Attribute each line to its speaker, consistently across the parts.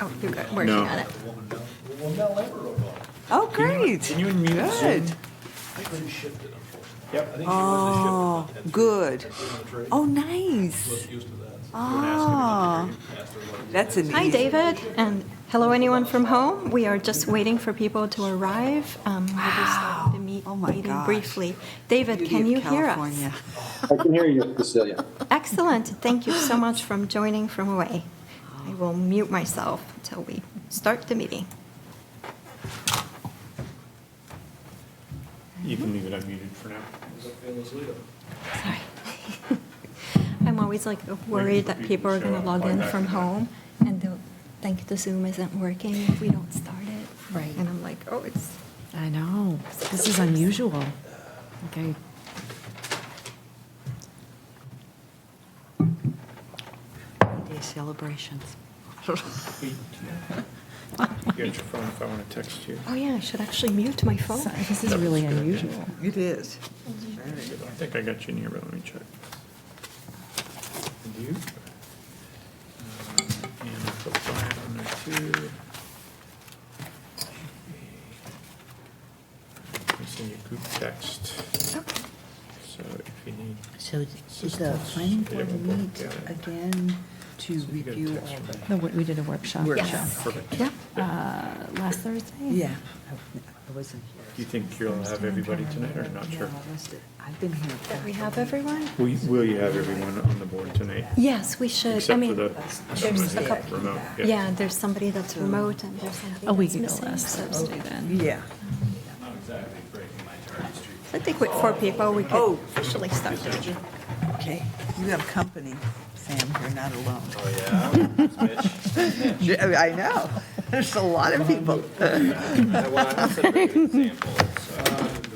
Speaker 1: Oh, you're good, working
Speaker 2: No.
Speaker 1: on it.
Speaker 3: Well, Mel Ever wrote
Speaker 4: Oh,
Speaker 2: Can you-
Speaker 4: great.
Speaker 2: Can you unmute Zoom?
Speaker 4: Good.
Speaker 3: I couldn't shift it, unfortunately.
Speaker 2: Yep.
Speaker 3: I think she
Speaker 4: Oh,
Speaker 3: was shifted.
Speaker 4: good.
Speaker 3: Good.
Speaker 4: Oh, nice.
Speaker 3: Wasn't used to that.
Speaker 4: Ah, that's an
Speaker 1: Hi,
Speaker 4: easy-
Speaker 1: David, and hello, anyone from home. We are just waiting for people to arrive. Um, We'll be starting to meet,
Speaker 4: Oh my
Speaker 1: meeting
Speaker 4: gosh.
Speaker 1: briefly. David, can you hear us?
Speaker 4: California.
Speaker 5: I can hear you, Cecilia.
Speaker 1: Excellent. Thank you so much from joining from away. I will mute myself until we start the meeting.
Speaker 2: You can leave it unmuted for now.
Speaker 1: Sorry. I'm always like worried that people are going to log in from home and they'll think the Zoom isn't working if we don't start it.
Speaker 6: Right.
Speaker 1: And I'm like, oh, it's,
Speaker 6: I know. This is unusual. Okay.
Speaker 4: Day celebrations.
Speaker 2: Wait. You got your phone if I want to text you.
Speaker 1: oh yeah, I should actually mute my phone.
Speaker 6: Sorry, This is really unusual.
Speaker 4: It is.
Speaker 2: I think I got you in here, but let me check. And you? Um, And I put Brian on there too. Let me send you a group text,
Speaker 1: Okay.
Speaker 2: so if you need.
Speaker 7: So is the planning board meet again to
Speaker 2: so you got a
Speaker 7: review
Speaker 2: text
Speaker 7: all
Speaker 2: from-
Speaker 7: the,
Speaker 6: The wor- We did a workshop.
Speaker 7: Workshop.
Speaker 1: Yes.
Speaker 2: Perfect.
Speaker 1: Yeah.
Speaker 6: uh, Last Thursday?
Speaker 7: yeah, I- I wasn't here.
Speaker 2: Do you think you'll have everybody tonight or not sure?
Speaker 7: No, I missed it. I've been here.
Speaker 1: That we have everyone?
Speaker 2: Will you- will you have everyone on the board tonight?
Speaker 1: Yes, we should. I
Speaker 2: Except for
Speaker 1: mean,
Speaker 2: the.
Speaker 1: there's a
Speaker 2: remote-
Speaker 1: couple.
Speaker 2: remote,
Speaker 1: Yeah, there's somebody that's remote and there's somebody
Speaker 6: A week
Speaker 1: that's
Speaker 6: ago
Speaker 1: missing,
Speaker 6: last
Speaker 1: so-
Speaker 6: Thursday then.
Speaker 7: Yeah.
Speaker 1: I think with four people, we could officially start.
Speaker 7: Okay. You have company, Sam. You're not alone.
Speaker 3: Oh,
Speaker 7: Yeah, I know. There's a lot of people.
Speaker 3: yeah. Well, that's a great example.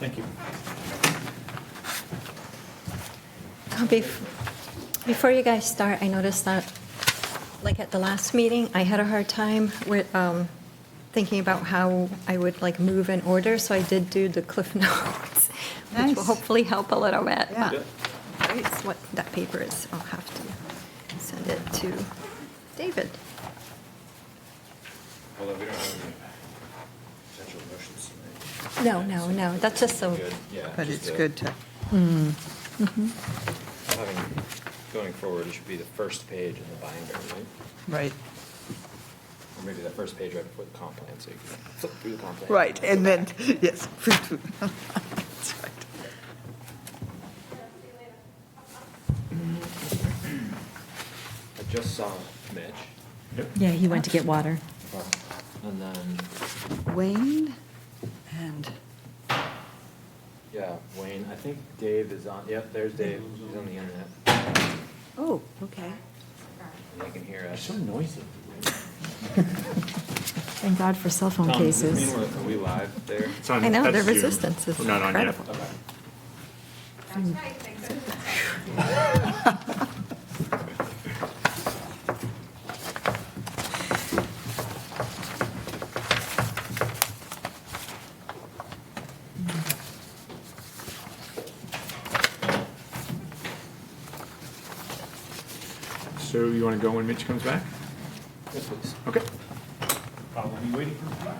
Speaker 2: Thank you.
Speaker 1: Uh, bef- Before you guys start, I noticed that, like at the last meeting, I had a hard time with um, thinking about how I would like move in order, so I did do the Cliff Notes, which will
Speaker 7: Nice.
Speaker 1: hopefully help a little bit.
Speaker 7: Yeah.
Speaker 1: but That's what that paper is. I'll have to send it to David.
Speaker 8: Although we don't have any potential motions tonight.
Speaker 1: No, no, no, that's just so,
Speaker 8: Good, yeah.
Speaker 7: But
Speaker 8: just
Speaker 7: it's
Speaker 8: the-
Speaker 7: good to,
Speaker 8: Having, going forward, it should be the first page in the binder, right?
Speaker 7: right.
Speaker 8: Or maybe the first page right before the comp plan, so you can flip through the comp plan.
Speaker 7: Right, and then, yes.
Speaker 8: I just saw Mitch,
Speaker 6: Yeah, he went to get water.
Speaker 8: and then,
Speaker 7: Wayne and,
Speaker 8: yeah, Wayne, I think Dave is on, yep, there's Dave, he's on the internet, and
Speaker 7: oh, okay.
Speaker 8: they can hear us.
Speaker 2: So noisy.
Speaker 6: Thank God for cell phone
Speaker 8: Tom, does this
Speaker 6: cases.
Speaker 8: mean we're- Are we live there?
Speaker 2: It's on-
Speaker 1: I know,
Speaker 2: that's
Speaker 1: their
Speaker 2: Zoom.
Speaker 1: resistance is
Speaker 2: We're not on yet.
Speaker 1: incredible.
Speaker 8: Okay.
Speaker 2: So you want to go when Mitch comes back?
Speaker 8: Yes, please.
Speaker 2: Okay. I'll Uh, be waiting for him.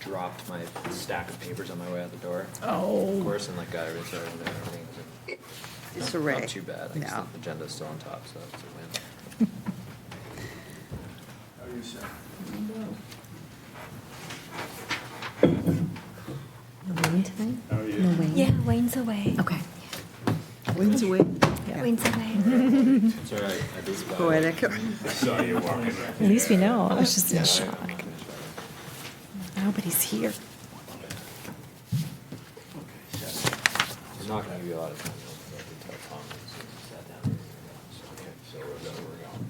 Speaker 8: Dropped my stack of papers on my way out the door.
Speaker 7: Oh.
Speaker 8: Of course, and like got everything sorted and everything. was in-
Speaker 7: It's a ray.
Speaker 8: Not too bad. I guess
Speaker 7: No.
Speaker 8: the agenda's still on top, so it's a win.
Speaker 6: No Wayne tonight? No Wayne?
Speaker 1: yeah, Wayne's away.
Speaker 6: Okay. Mm-hmm.
Speaker 7: Wayne's away.
Speaker 1: Wayne's away.
Speaker 8: It's all right. I did that.
Speaker 7: Poetic.
Speaker 6: At least we know. I was just
Speaker 8: Yeah,
Speaker 6: in
Speaker 8: I-
Speaker 6: shock. Nobody's here.
Speaker 8: I'm not gonna give you a lot of time, though, because I did tell Tom that as soon as he sat down. he was gonna go. So, Okay, so we're going, we're going.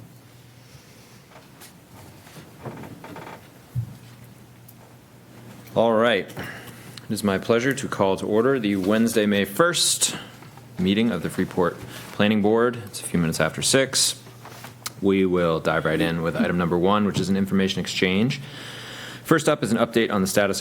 Speaker 8: All right. It is my pleasure to call to order the Wednesday, May 1st meeting of the Freeport Planning Board. It's a few minutes after six. We will dive right in with item number one, which is an information exchange. First up is an update on the status of